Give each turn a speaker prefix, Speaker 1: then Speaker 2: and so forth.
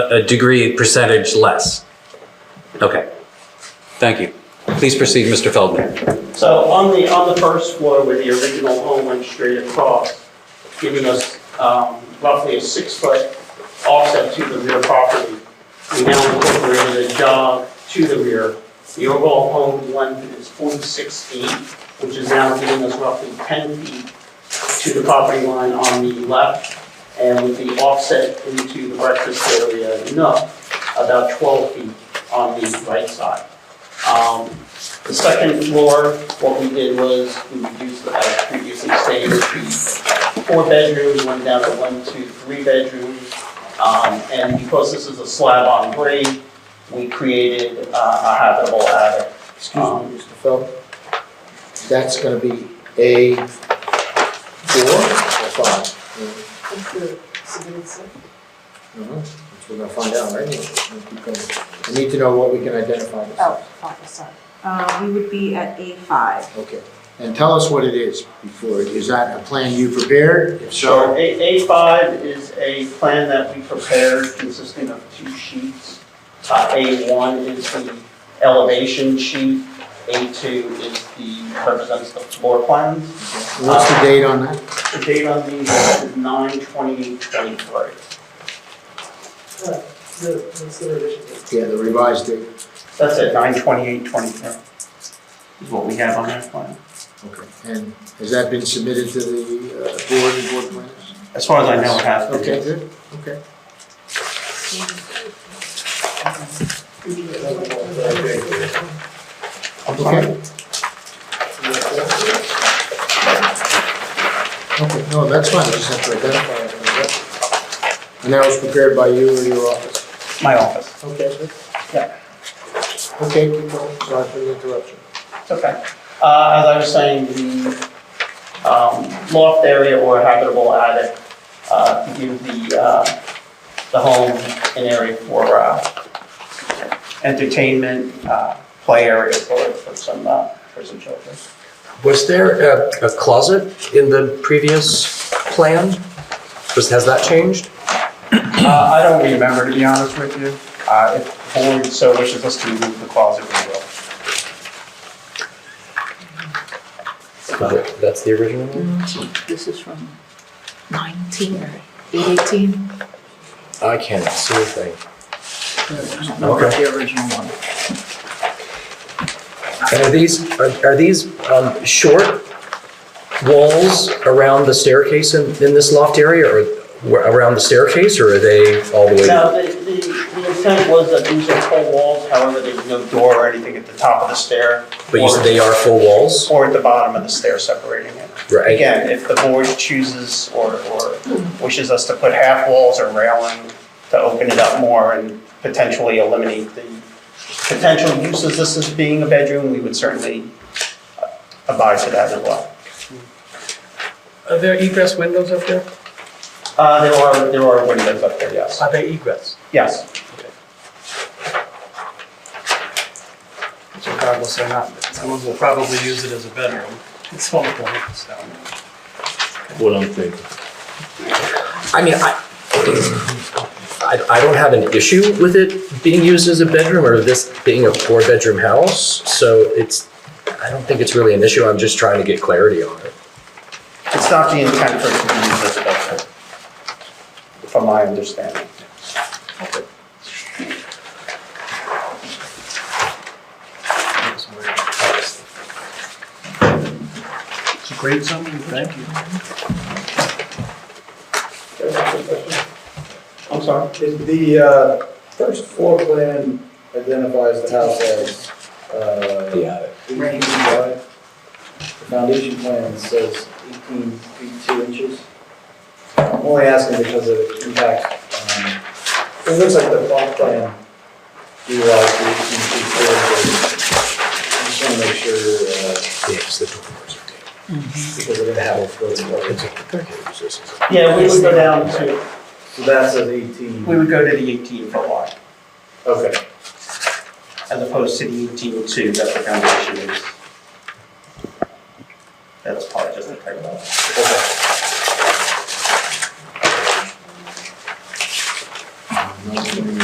Speaker 1: a degree percentage less. Okay. Thank you. Please proceed, Mr. Feldman.
Speaker 2: So on the, on the first floor where the original home went straight across, giving us um, roughly a six-foot offset to the rear property. We now incorporated a jog to the rear. The overall home length is 46 feet, which is now giving us roughly 10 feet to the property line on the left, and with the offset into the breakfast area, no, about 12 feet on the right side. Um, the second floor, what we did was we reduced, the- as previously stated, four bedrooms, went down to one, two, three bedrooms. Um, and because this is a slab on grade, we created uh, a habitable attic.
Speaker 3: Excuse me, Mr. Feld. That's gonna be A four or five?
Speaker 4: That's the submitted set.
Speaker 3: Mhm. That's what We're gonna find out, right? We'll keep going. We need to know what we can identify. this
Speaker 4: Oh, oh, sorry. Uh, we would be at A5.
Speaker 3: as. Okay, and tell us what it is before, is that a plan you prepared? If
Speaker 2: So
Speaker 3: so,
Speaker 2: A, A5 is a plan that we prepared consisting of two sheets. Uh, A1 is the elevation sheet, A2 is the, represents the floor plans.
Speaker 3: what's the date on that?
Speaker 2: The date on these is nine twenty-eight twenty-three.
Speaker 3: Yeah, the revised date.
Speaker 2: That's it, nine twenty-eight twenty-three is what we have on that plan.
Speaker 3: Okay, and has that been submitted to the uh, board and board plans?
Speaker 2: As far as I know, it has. been.
Speaker 3: Okay, good, okay. Okay. Okay, no, that's fine, I just have to identify it. And that was prepared by you or your office?
Speaker 2: My office.
Speaker 3: Okay, good.
Speaker 2: Yeah.
Speaker 3: Okay, keep going, sorry for the interruption.
Speaker 2: It's okay. Uh, as I was saying, the, um, loft area or habitable attic, uh, to give the, uh, the home an area for, uh, entertainment, uh, play area for, for some, uh, for some children.
Speaker 5: Was there a, a closet in the previous plan? Was, has that changed?
Speaker 2: Uh, I don't remember, to be honest with you. Uh, if the board so wishes us to remove the closet, we will.
Speaker 5: That's the original one?
Speaker 4: This is from 19 or 818.
Speaker 5: I can't see a thing.
Speaker 4: I don't
Speaker 5: know about
Speaker 4: the original one.
Speaker 5: And are these, are, are these, um, short walls around the staircase in, in this loft area or where- around the staircase or are they all the way?
Speaker 2: Now, the, the, the intent was that these are full walls, however, there's no door or anything at the top of the stair.
Speaker 5: But you said they are full walls?
Speaker 2: Or at the bottom of the stair separating it.
Speaker 5: Right.
Speaker 2: Again, if the board chooses or, or wishes us to put half walls or railing to open it up more and potentially eliminate the potential uses this as being a bedroom, we would certainly abide to that as well.
Speaker 6: Are there egress windows up there?
Speaker 2: Uh, there are, there are windows up there, yes.
Speaker 6: Are there egress?
Speaker 2: Yes.
Speaker 6: So Regardless or not, someone will probably use it as a bedroom at some point, so.
Speaker 7: what I'm thinking.
Speaker 5: I mean, I, I, I don't have an issue with it being used as a bedroom or this being a four-bedroom house, so it's, I don't think it's really an issue, I'm just trying to get clarity on it.
Speaker 2: It's not the intent for it to be used as a bedroom, from my understanding.
Speaker 6: It's a great summary, thank you.
Speaker 2: I'm sorry?
Speaker 8: Is The uh, first floor plan identifies the house as, uh,
Speaker 5: The attic.
Speaker 8: 18 wide. The foundation plan says 18 feet 2 inches. I'm only asking because of the impact. um, It looks like the plot plan utilized the 18 feet 4 inches. I just want to make sure, uh,
Speaker 5: Yes, the doors are
Speaker 8: because I didn't have a building
Speaker 5: taken.
Speaker 8: permit.
Speaker 5: It's-
Speaker 2: Yeah, we would go down to,
Speaker 8: So that says 18.
Speaker 2: we would go to the 18 foot wide,
Speaker 8: Okay.
Speaker 2: as opposed to the 18 two that the foundation is. That's probably just a typo.
Speaker 8: Okay.